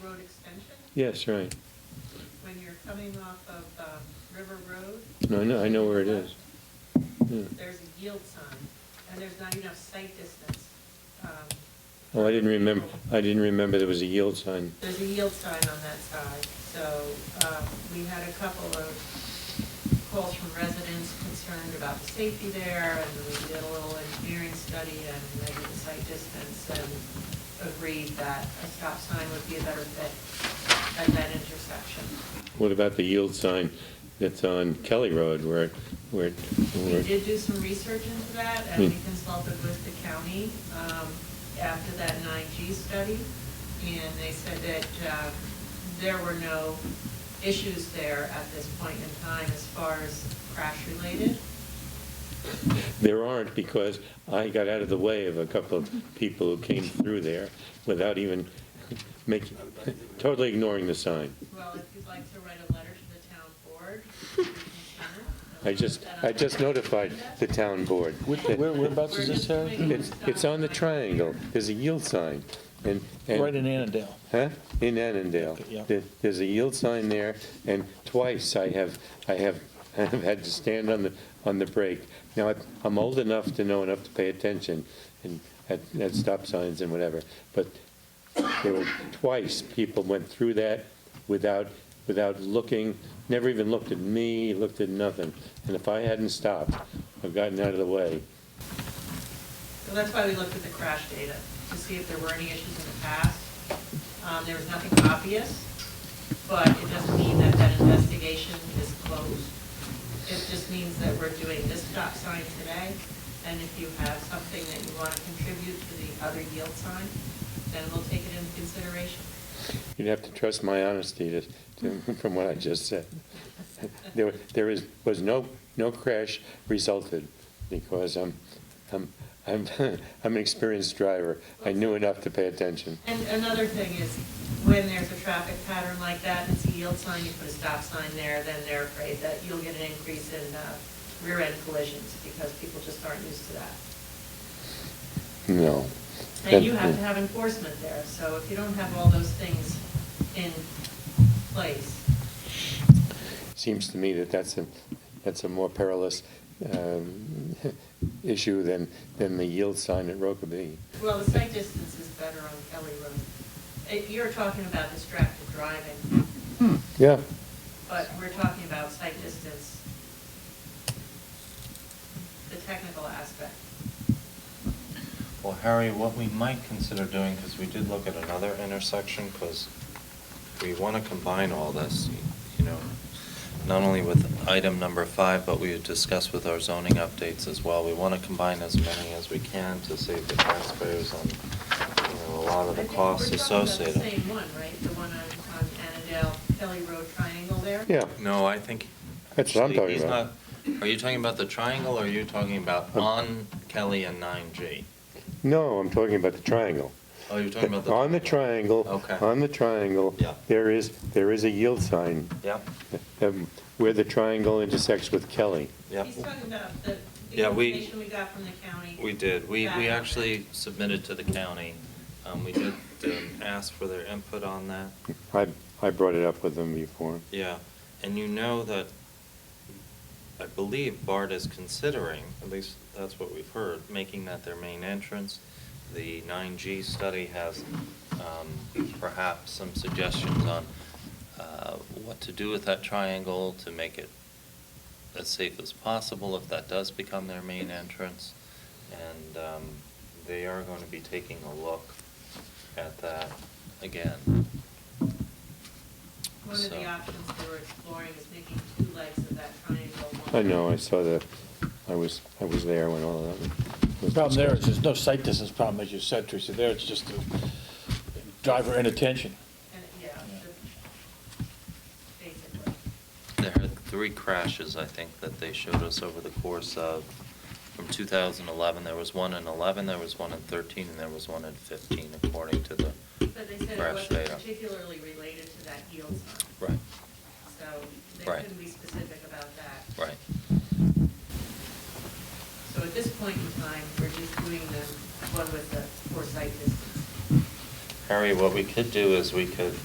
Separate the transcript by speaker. Speaker 1: Road extension,
Speaker 2: Yes, right.
Speaker 1: when you're coming off of um, River Road,
Speaker 2: No, I know, I know where it is. Yeah.
Speaker 1: there's a yield sign, and there's not enough sight distance. Um,
Speaker 2: Oh, I didn't remember, I didn't remember there was a yield sign.
Speaker 1: There's a yield sign on that side, so um, we had a couple of calls from residents concerned about the safety there, and we did a little engineering study and measured the sight distance and agreed that a stop sign would be a better fit at that intersection.
Speaker 2: What about the yield sign that's on Kelly Road where, it- where, it-
Speaker 1: We
Speaker 2: where? it-
Speaker 1: did do some research into that, and we
Speaker 2: Hmm.
Speaker 1: consulted with the county um, after that 9G study, and they said that uh, there were no issues there at this point in time as far as crash-related.
Speaker 2: There aren't because I got out of the way of a couple of people who came through there without even making, totally ignoring the sign.
Speaker 1: Well, if you'd like to write a letter to the town board, you can send it.
Speaker 2: I just, I just notified the town board.
Speaker 3: Which- where- Whereabouts is this, Sarah?
Speaker 2: It's, it's on the triangle. There's a yield sign and. and-
Speaker 3: Right in Annandale.
Speaker 2: Huh? In Annandale.
Speaker 3: Okay, yeah.
Speaker 2: There- There's a yield sign there, and twice I have, I have, I have had to stand on the, on the brake. Now, I- I'm old enough to know enough to pay attention and at, at stop signs and whatever, but there were twice people went through that without, without looking, never even looked at me, looked at nothing. And if I hadn't stopped, I've gotten out of the way.
Speaker 1: So that's why we looked at the crash data, to see if there were any issues in the past. Um, There was nothing obvious, but it doesn't mean that that investigation is closed. It just means that we're doing this stop sign today, and if you have something that you want to contribute to the other yield sign, then we'll take it into consideration.
Speaker 2: You'd have to trust my honesty to, to, from what I just said. There, there is, was no, no crash resulted because I'm, I'm, I'm, I'm an experienced driver. I knew enough to pay attention.
Speaker 1: And another thing is, when there's a traffic pattern like that, it's a yield sign, you put a stop sign there, then they're afraid that you'll get an increase in uh, rear-end collisions because people just aren't used to that.
Speaker 2: No.
Speaker 1: And you have to have enforcement there, so if you don't have all those things in place,
Speaker 2: Seems to me that that's a, that's a more perilous, um, issue than, than the yield sign at Rokeby.
Speaker 1: well, the sight distance is better on Kelly Road. It- Eh, You're talking about distracted driving,
Speaker 2: Yeah,
Speaker 1: but we're talking about sight distance, the technical aspect.
Speaker 4: Well, Harry, what we might consider doing, because we did look at another intersection, because we want to combine all this, you know, not only with item number five, but we had discussed with our zoning updates as well. We want to combine as many as we can to save the taxpayers on, you know, a lot of the costs
Speaker 1: I think
Speaker 4: associated.
Speaker 1: we're talking about the same one, right? The one on, on Annandale Kelly Road triangle there?
Speaker 2: yeah.
Speaker 4: No, I think.
Speaker 2: That's what I'm
Speaker 4: actually,
Speaker 2: talking
Speaker 4: he's
Speaker 2: about.
Speaker 4: not- Are you talking about the triangle, or are you talking about
Speaker 2: Um,
Speaker 4: on Kelly and nine G?
Speaker 2: No, I'm talking about the triangle.
Speaker 4: Oh, you're talking about the.
Speaker 2: On the triangle.
Speaker 4: Okay.
Speaker 2: On the triangle.
Speaker 4: Yeah.
Speaker 2: There is, there is a yield sign
Speaker 4: Yep,
Speaker 2: um, where the triangle intersects with Kelly.
Speaker 4: yep.
Speaker 1: He's talking about the, the
Speaker 4: Yeah, we-
Speaker 1: information we got from the county.
Speaker 4: We did. We,
Speaker 1: back
Speaker 4: we
Speaker 1: up.
Speaker 4: actually submitted to the county. Um, we did um, ask for their input on that.
Speaker 2: I, I brought it up with them before.
Speaker 4: Yeah, and you know that, I believe BART is considering, at least that's what we've heard, making that their main entrance. The 9G study has um, perhaps some suggestions on uh, what to do with that triangle to make it as safe as possible if that does become their main entrance. And um, they are going to be taking a look at that again.
Speaker 1: One of the
Speaker 4: So-
Speaker 1: options they were exploring is making two legs of that triangle. one-
Speaker 2: I know, I saw the, I was, I was there when all of that was.
Speaker 3: The problem there is there's no sight distance problem, as you said, Teresa. There, it's just the driver inattention.
Speaker 1: And, yeah, the- basically.
Speaker 4: There are three crashes, I think, that they showed us over the course of, from 2011, there was one in 11, there was one in 13, and there was one in 15, according to the
Speaker 1: But they said it
Speaker 4: crash
Speaker 1: wasn't
Speaker 4: data.
Speaker 1: particularly related to that yield sign,
Speaker 4: Right,
Speaker 1: so they
Speaker 4: Right.
Speaker 1: couldn't be specific about that.
Speaker 4: right.
Speaker 1: So at this point in time, we're just doing the one with the foresight distance.
Speaker 4: Harry, what we could do is we could